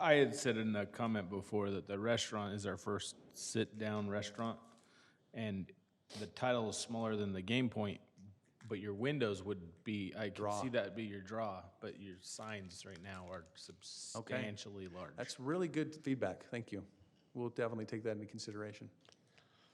I, I had said in a comment before that the restaurant is our first sit-down restaurant, and the title is smaller than the game point, but your windows would be, I can see that be your draw, but your signs right now are substantially large. That's really good feedback. Thank you. We'll definitely take that into consideration.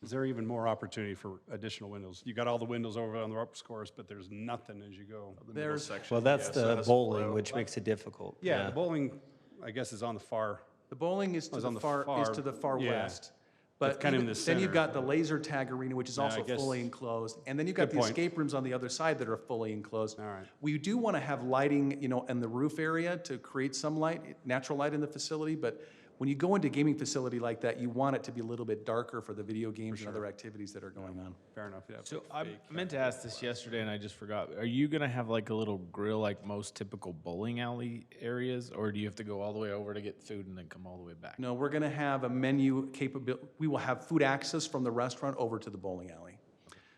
Is there even more opportunity for additional windows? You got all the windows over on the upper course, but there's nothing as you go. There's, Well, that's the bowling, which makes it difficult. Yeah, the bowling, I guess, is on the far. the bowling is to was the Oh, on the far, is far- to the far yeah. west. But It's kinda in even- the then you've center. got the laser tag arena, which is I also guess- fully enclosed. And then you've got Good the point. escape rooms on the other side that are fully enclosed. All right. We do want to have lighting, you know, in the roof area to create some light, natural light in the facility. But when you go into a gaming facility like that, you want it to be a little bit darker for the video games and other activities that are going on. Fair enough, yeah. So I meant to ask this yesterday and I just forgot. Are you gonna have like a little grill like most typical bowling alley areas, or do you have to go all the way over to get food and then come all the way back? No, we're going to have a menu capability, we will have food access from the restaurant over to the bowling alley.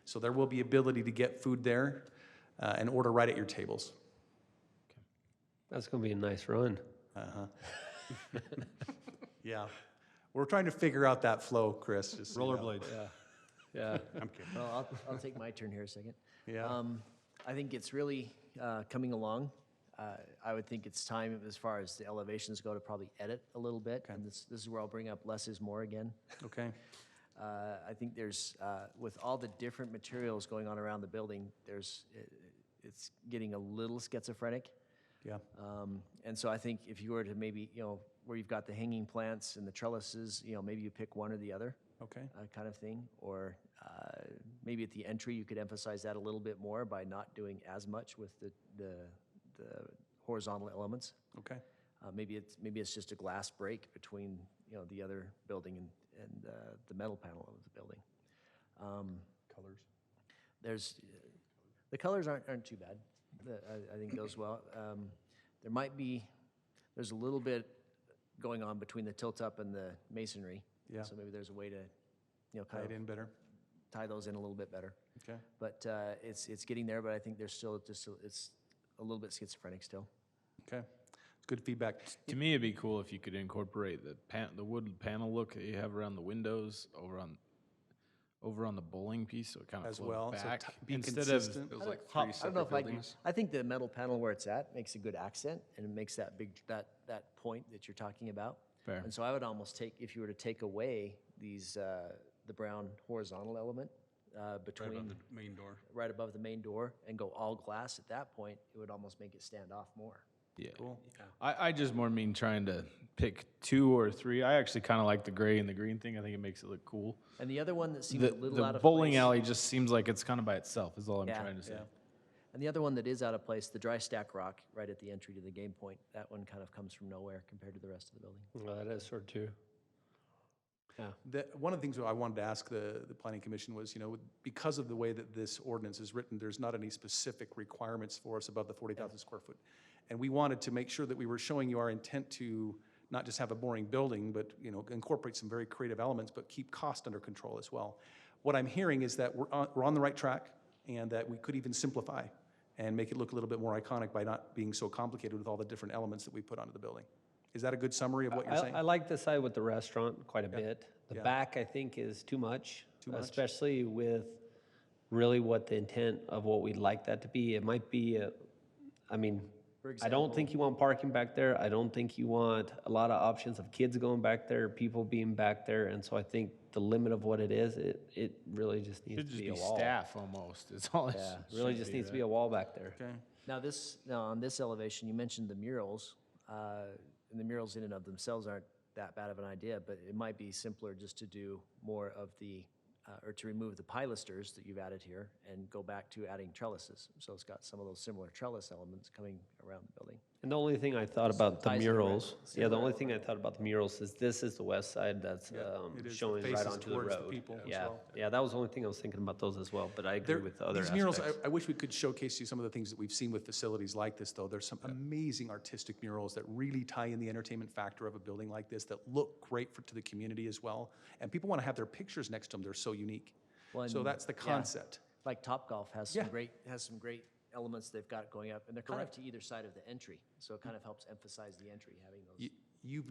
So there will be ability to get food there uh, and order right at your tables. That's gonna be a nice run. Yeah. We're trying to figure out that flow, Chris. just so you know. Rollerblades. Yeah. Well, I'll, I'll take my turn here a second. Yeah. Um, I think it's really uh, coming along. Uh, I would think it's time, as far as the elevations go, to probably edit a little bit. And this, this is where I'll bring up less is more again. Okay. Uh, I think there's, uh, with all the different materials going on around the building, there's, it, it's getting a little schizophrenic. Yeah. Um, And so I think if you were to maybe, you know, where you've got the hanging plants and the trellises, you know, maybe you pick one or the other Okay. uh, kind of thing, or uh, maybe at the entry, you could emphasize that a little bit more by not doing as much with the, the, the horizontal elements. Okay. Uh, Maybe it's, maybe it's just a glass break between, you know, the other building and, and uh, the metal panel of the building. Um, there's, the colors aren't, aren't too bad. The- I, I think those well. Um, There might be, there's a little bit going on between the tilt-up and the masonry. Yeah. So maybe there's a way to, you know, Tie kind it of in better. tie those in a little bit better. Okay. But uh, it's, it's getting there, but I think there's still just, a- it's a little bit schizophrenic still. Okay. Good feedback. To me, it'd be cool if you could incorporate the pan, the wood panel look that you have around the windows over on, over on the bowling piece, so it kind of As flows well, so back ti- be instead of consistent. those, I like don't- I don't know if I'd be- I think the metal panel where it's at makes a good accent and it makes that big, that, that point that you're talking about. Fair. And so I would almost take, if you were to take away these, uh, the brown horizontal element uh, between, Main door. right above the main door and go all glass at that point, it would almost make it stand off more. yeah. I, I just more mean trying to pick two or three. I actually kind of like the gray and the green thing. I think it makes it look cool. And the other one that seems The, a little out the of bowling place- alley just seems like it's kind of by itself. Is all I'm Yeah. trying to say. And the other one that is out of place, the dry stack rock right at the entry to the game point, that one kind of comes from nowhere compared to the rest of the building. Well, that is sort of true. The, one of the things that I wanted to ask the, the planning commission was, you know, because of the way that this ordinance is written, there's not any specific requirements for us above the forty thousand square foot. And we wanted to make sure that we were showing you our intent to not just have a boring building, but, you know, incorporate some very creative elements, but keep cost under control as well. What I'm hearing is that we're on, we're on the right track and that we could even simplify and make it look a little bit more iconic by not being so complicated with all the different elements that we put onto the building. Is that a good summary of what you're saying? I, I like the side with the restaurant quite a bit. The back, I think, is too much. Especially with really what the intent of what we'd like that to be. It might be, a- I mean, I don't think you want parking back there. I don't think you want a lot of options of kids going back there, people being back there. And so I think the limit of what it is, it, it really just It needs just to be be a wall. staff almost. It's all. Yeah, really just needs to be a wall back there. Okay. Now, this, now on this elevation, you mentioned the murals, uh, and the murals in and of themselves aren't that bad of an idea, but it might be simpler just to do more of the, uh, or to remove the pilasters that you've added here and go back to adding trellises. So it's got some of those similar trellis elements coming around the building. And the only thing I thought about the ties in, right? murals, yeah, the only thing I thought about the murals is this is the west side that's um, it is. The showing right faces onto the towards the road. people as Yeah, well. yeah, that was the only thing I was thinking about those as well, but I agree There- with the other These murals, I, aspects. I wish we could showcase you some of the things that we've seen with facilities like this, though. There's some amazing artistic murals that really tie in the entertainment factor of a building like this that look great for, to the community as well. And people want to have their pictures next to them. They're so unique. So and- that's the concept. Like Topgolf has some Yeah. great, has some great elements they've got going up, and they're kind of to either side of the entry. So it kind of helps emphasize the entry, having those. You, you've